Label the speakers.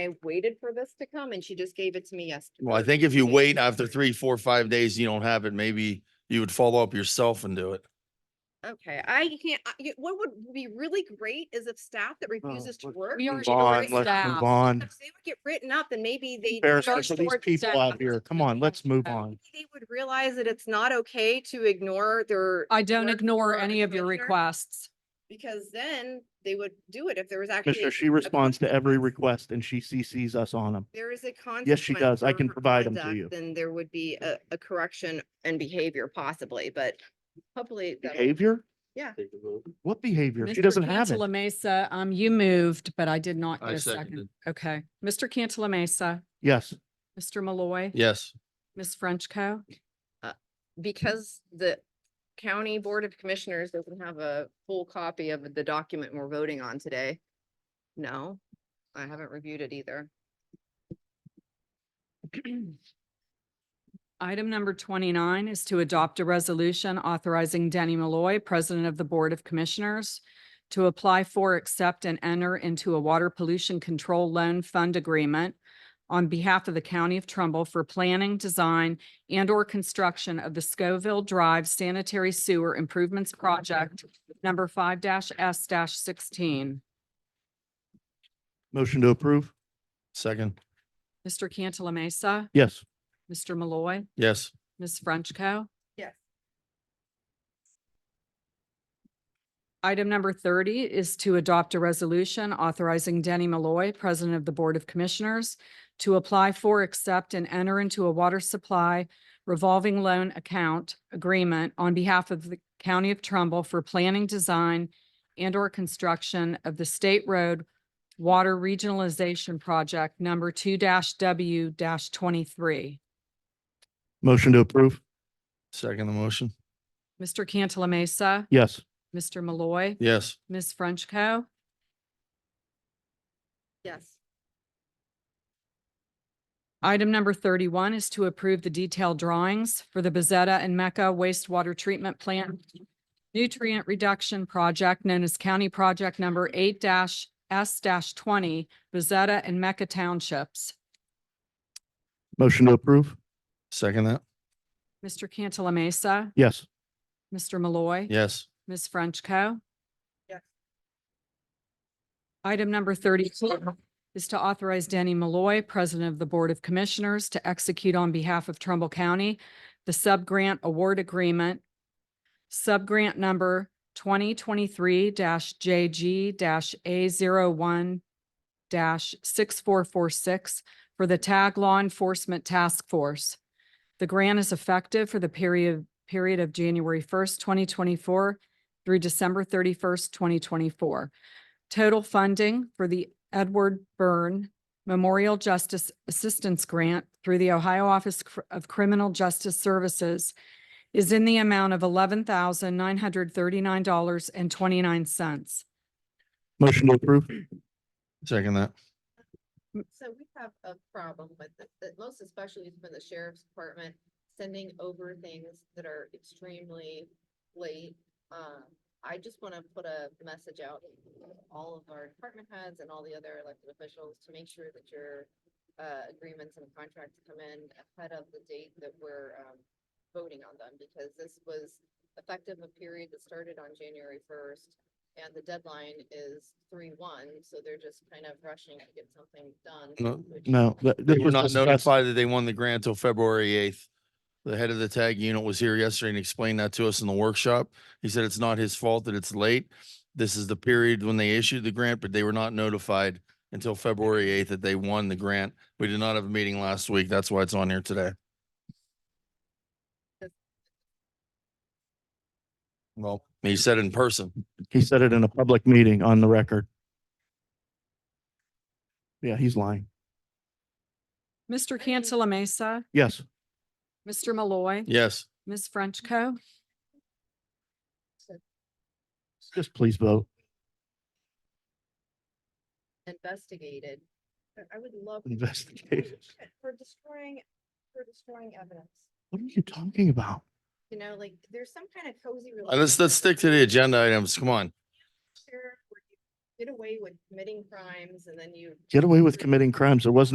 Speaker 1: I waited for this to come and she just gave it to me yesterday.
Speaker 2: Well, I think if you wait after three, four, five days, you don't have it, maybe you would follow up yourself and do it.
Speaker 1: Okay, I can't, I- you- what would be really great is if staff
Speaker 3: Oh,
Speaker 1: that refuses to
Speaker 3: look,
Speaker 1: work.
Speaker 4: We
Speaker 3: Move
Speaker 4: already
Speaker 3: on,
Speaker 4: already
Speaker 3: let's move
Speaker 4: staff.
Speaker 3: on.
Speaker 1: If they would get written up and maybe they.
Speaker 3: Embarrassment for
Speaker 1: start
Speaker 3: these
Speaker 1: towards
Speaker 3: people
Speaker 1: staff.
Speaker 3: out here. Come on, let's move on.
Speaker 1: Maybe They would realize that it's not okay to ignore their,
Speaker 4: I don't
Speaker 1: work
Speaker 4: ignore
Speaker 1: for the
Speaker 4: any of your
Speaker 1: commissioner?
Speaker 4: requests.
Speaker 1: because then they would do it if there was actually.
Speaker 3: Commissioner,
Speaker 1: a-
Speaker 3: she responds to every request and she CCs us on them.
Speaker 1: There is a consequence.
Speaker 3: Yes, she does. I
Speaker 1: for
Speaker 3: can
Speaker 1: her
Speaker 3: provide 'em to
Speaker 1: conduct,
Speaker 3: you.
Speaker 1: Then there would be a, a correction and behavior possibly, but hopefully. that'll-
Speaker 3: Behavior?
Speaker 1: Yeah.
Speaker 3: What behavior? She
Speaker 4: Mr.
Speaker 3: doesn't have
Speaker 4: Cantala
Speaker 3: it.
Speaker 4: Mesa, um, you moved, but I did not
Speaker 2: I
Speaker 4: get a second.
Speaker 2: seconded.
Speaker 4: Okay. Mr. Cantala Mesa,
Speaker 3: Yes,
Speaker 4: Mr. Malloy,
Speaker 2: Yes,
Speaker 4: Ms. Frenchco.
Speaker 1: because the county board of commissioners doesn't have a full copy of the document we're voting on today. No, I haven't reviewed it either.
Speaker 4: Item number twenty-nine is to adopt a resolution authorizing Denny Malloy, President of the Board of Commissioners, to apply for, accept, and enter into a water pollution control loan fund agreement on behalf of the County of Trumbull for planning, design, and/or construction of the Scoville Drive Sanitary Sewer Improvements Project number five S sixteen.
Speaker 3: motion to approve?
Speaker 2: second,
Speaker 4: Mr. Cantala Mesa,
Speaker 3: Yes,
Speaker 4: Mr. Malloy,
Speaker 2: yes,
Speaker 4: Ms. Frenchco.
Speaker 1: Yes.
Speaker 4: Item number thirty is to adopt a resolution authorizing Denny Malloy, President of the Board of Commissioners, to apply for, accept, and enter into a water supply revolving loan account agreement on behalf of the County of Trumbull for planning, design, and/or construction of the State Road Water Regionalization Project number two W twenty-three.
Speaker 3: motion to approve?
Speaker 2: second the motion,
Speaker 4: Mr. Cantala Mesa,
Speaker 3: Yes,
Speaker 4: Mr. Malloy,
Speaker 2: yes,
Speaker 4: Ms. Frenchco.
Speaker 1: Yes.
Speaker 4: Item number thirty-one is to approve the detailed drawings for the Bezetta and Mecca wastewater treatment plant nutrient reduction project known as County Project Number eight S twenty, Bezetta and Mecca Townships.
Speaker 3: motion to approve?
Speaker 2: second that,
Speaker 4: Mr. Cantala Mesa,
Speaker 3: Yes,
Speaker 4: Mr. Malloy.
Speaker 2: yes,
Speaker 4: Ms. Frenchco.
Speaker 1: Yes.
Speaker 4: Item number thirty-two is to authorize Danny Malloy, President of the Board of Commissioners, to execute on behalf of Trumbull County the sub-grant award agreement, sub-grant number twenty twenty-three JG A one six four four six for the TAG Law Enforcement Task Force. The grant is effective for the period, period of January first, twenty twenty-four through December thirty-first, twenty twenty-four. Total funding for the Edward Byrne Memorial Justice Assistance Grant through the Ohio Office Cr- of Criminal Justice Services is in the amount of eleven thousand nine hundred thirty-nine dollars and twenty-nine cents.
Speaker 3: motion to approve?
Speaker 2: second that,
Speaker 1: So we have a problem with the, the- most especially has been the sheriff's department sending over things that are extremely late. Um, I just want to put a message out to all of our department heads and all the other elected officials to make sure that your uh, agreements and contracts come in ahead of the date that we're um, voting on them because this was effective a period that started on January first. And the deadline is three one, so they're just kind of rushing to get something done.
Speaker 2: No,
Speaker 1: which-
Speaker 3: No. th- this
Speaker 2: They were
Speaker 3: was
Speaker 2: not
Speaker 3: discussed.
Speaker 2: notified that they won the grant till February eighth. The head of the tag unit was here yesterday and explained that to us in the workshop. He said it's not his fault that it's late. This is the period when they issued the grant, but they were not notified until February eighth that they won the grant. We did not have a meeting last week. That's why it's on here today. Well, he said in person.
Speaker 3: He said it in a public meeting on the record. Yeah, he's lying.
Speaker 4: Mr. Cantala Mesa,
Speaker 3: Yes,
Speaker 4: Mr. Malloy,
Speaker 2: Yes,
Speaker 4: Ms. Frenchco.
Speaker 3: just please vote.
Speaker 1: investigated. I- I would love.
Speaker 3: Investigated.
Speaker 1: For destroying, for destroying evidence,
Speaker 3: What are you talking about?
Speaker 1: you know, like there's some kind of cozy.
Speaker 2: let's, let's stick to the agenda items. Come on.
Speaker 1: relationship where you
Speaker 5: get away with committing crimes and then you
Speaker 1: Get away with committing crimes. There was